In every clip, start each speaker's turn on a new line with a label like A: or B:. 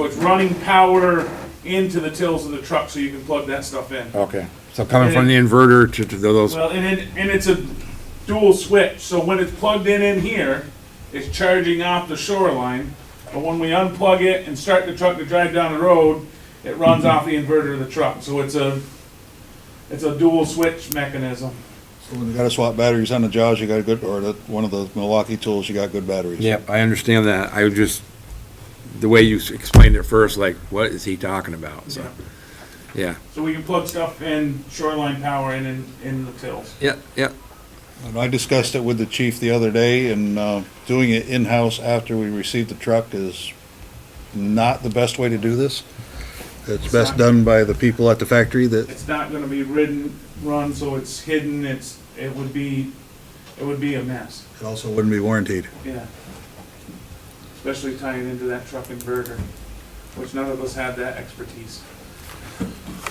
A: So It's running power into the tills of the truck so you can plug that stuff in.
B: Okay, so coming from the inverter to, to those,
A: Well, and it, and it's a dual switch, so when it's plugged in in here, it's charging off the shoreline. But when we unplug it and start the truck to drive down the road, it runs off the inverter of the truck. So it's a, it's a dual switch mechanism.
C: When you gotta swap batteries on the Jaws, you got good, or the, one of the Milwaukee tools, you got good batteries.
B: yep, I understand that, I was just, the way you s- explained it first, like, what is he talking about, so, yeah,
A: So we can plug stuff in shoreline power in, in, in the tills.
B: yeah, yeah,
C: And I discussed it with the chief the other day, and, uh, doing it in-house after we received the truck is not the best way to do this. It's best done by the people at the factory that,
A: It's not gonna be ridden, run, so it's hidden, it's, it would be, it would be a mess,
C: it also wouldn't be warranted.
A: yeah. Especially tying into that truck inverter, which none of us have that expertise.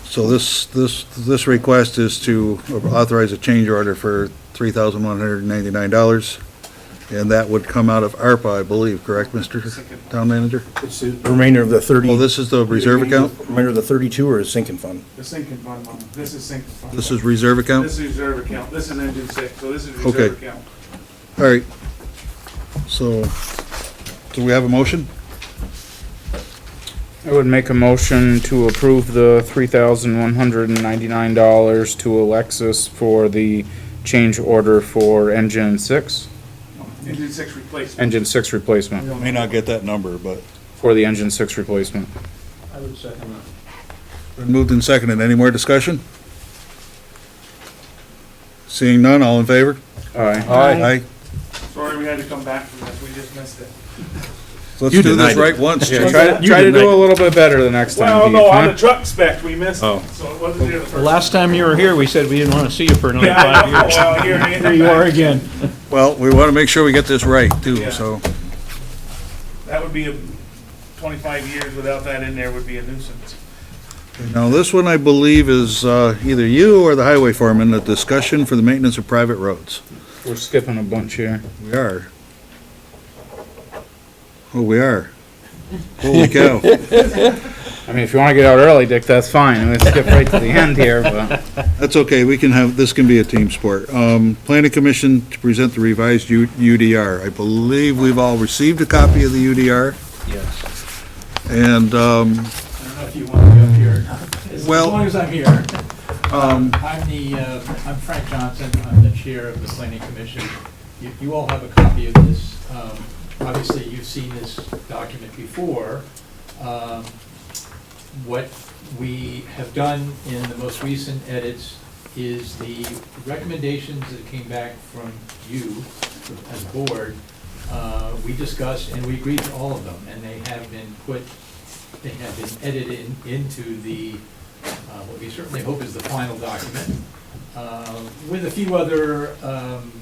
C: So this, this, this request is to authorize a change order for three thousand one hundred and ninety-nine dollars. And that would come out of ARPA, I believe, correct, Mr. Town Manager?
D: It's the remainder of the
C: Well,
D: 30.
C: this is the reserve account?
D: Remainder of the 32 or is sinking fund?
A: The sinking fund, Mom. this is sinking fund.
C: This is reserve account?
A: This is reserve account, this is engine six, so this is
C: Okay.
A: reserve account.
C: All right. So, do we have a motion?
E: I would make a motion to approve the three thousand one hundred and ninety-nine dollars to Alexis for the change order for engine six,
A: Engine six replacement.
E: engine six replacement,
C: May not get that number, but.
E: for the engine six replacement.
F: I would second that.
C: Moved and seconded. Any more discussion? Seeing none, all in favor?
E: Aye.
C: Aye.
A: Sorry, we had to come back from this, we just missed it.
C: Let's
D: You
C: do this
D: denied it.
C: right once.
E: Yeah,
C: Chuck.
E: try to,
D: You
E: try to
D: did
E: do
D: make-
E: a little bit better the next time,
A: Well,
E: Heath,
A: no, on
E: huh?
A: the truck spec, we missed
E: Oh.
A: it, so it wasn't here the
F: The
A: first.
F: last time you were here, we said we didn't want to see you for another
A: Yeah, I
F: five
A: know,
F: years.
A: well, here it is.
F: Here you are again.
C: Well, we want to make sure we get this right
A: Yeah.
C: too, so.
A: That would be, a twenty-five years without that in there would be a nuisance.
C: Now, this one I believe is uh, either you or the highway foreman, a discussion for the maintenance of private roads.
E: We're skipping a bunch here.
C: We are. Oh, we are. Holy cow.
E: I mean, if you wanna get out early, Dick, that's fine, I'm gonna skip right to the end here, but.
C: That's okay, we can have, this can be a team sport. Um, planning commission to present the revised U- UDR. I believe we've all received a copy of the UDR.
F: Yes.
C: And, um,
F: I don't know if you want me up here or not. As
C: Well-
F: long as I'm here. Um, I'm the, uh, I'm Frank Johnson. I'm the chair of the planning commission. You, you all have a copy of this. Um, Obviously, you've seen this document before. Um, What we have done in the most recent edits is the recommendations that came back from you as a board, uh, we discussed and we agreed to all of them, and they have been put, they have been edited in- into the, uh, what we certainly hope is the final document, uh, with a few other um,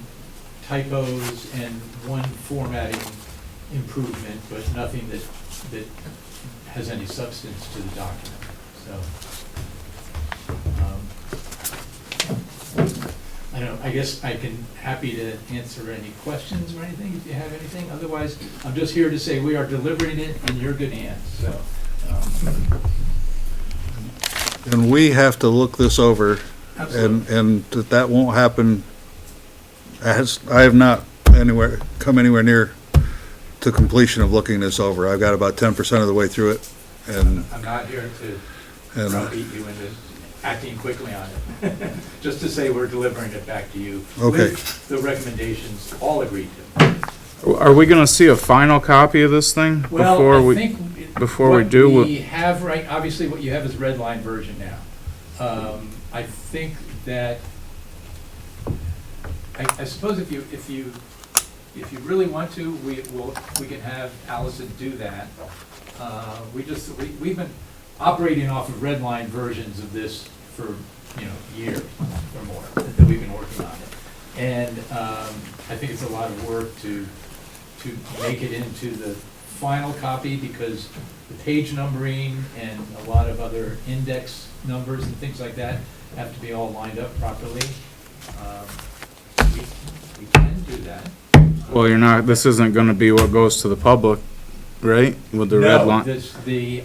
F: typos and one formatting improvement, but nothing that, that has any substance to the document, so. um, I don't, I guess I can, happy to answer any questions or anything, if you have anything. Otherwise, I'm just here to say we are delivering it in your good hands, so. um,
C: and we have to look this over and, and that that won't happen. I has, I have not anywhere, come anywhere near to completion of looking this over. I've got about ten percent of the way through it and,
F: I'm not here to
C: and uh,
F: beat you into acting quickly on it. Just to say we're delivering it back to you.
C: Okay.
F: With the recommendations all agreed to.
E: Are we gonna see a final copy of this thing before
F: Well, I
E: we,
F: think. it-
E: before we do,
F: What
E: we'll-
F: we have right, obviously what you have is red line version now. Um, I think that, I, I suppose if you, if you, if you really want to, we will, we can have Allison do that. Uh, we just, we, we've been operating off of red line versions of this for, you know, years or more, that we've been working on it. And, um, I think it's a lot of work to, to make it into the final copy because the page numbering and a lot of other index numbers and things like that have to be all lined up properly. Um, We we can do that.
E: well, you're not, this isn't gonna be what goes to the public right? With the red
F: No,
E: line?
F: this, the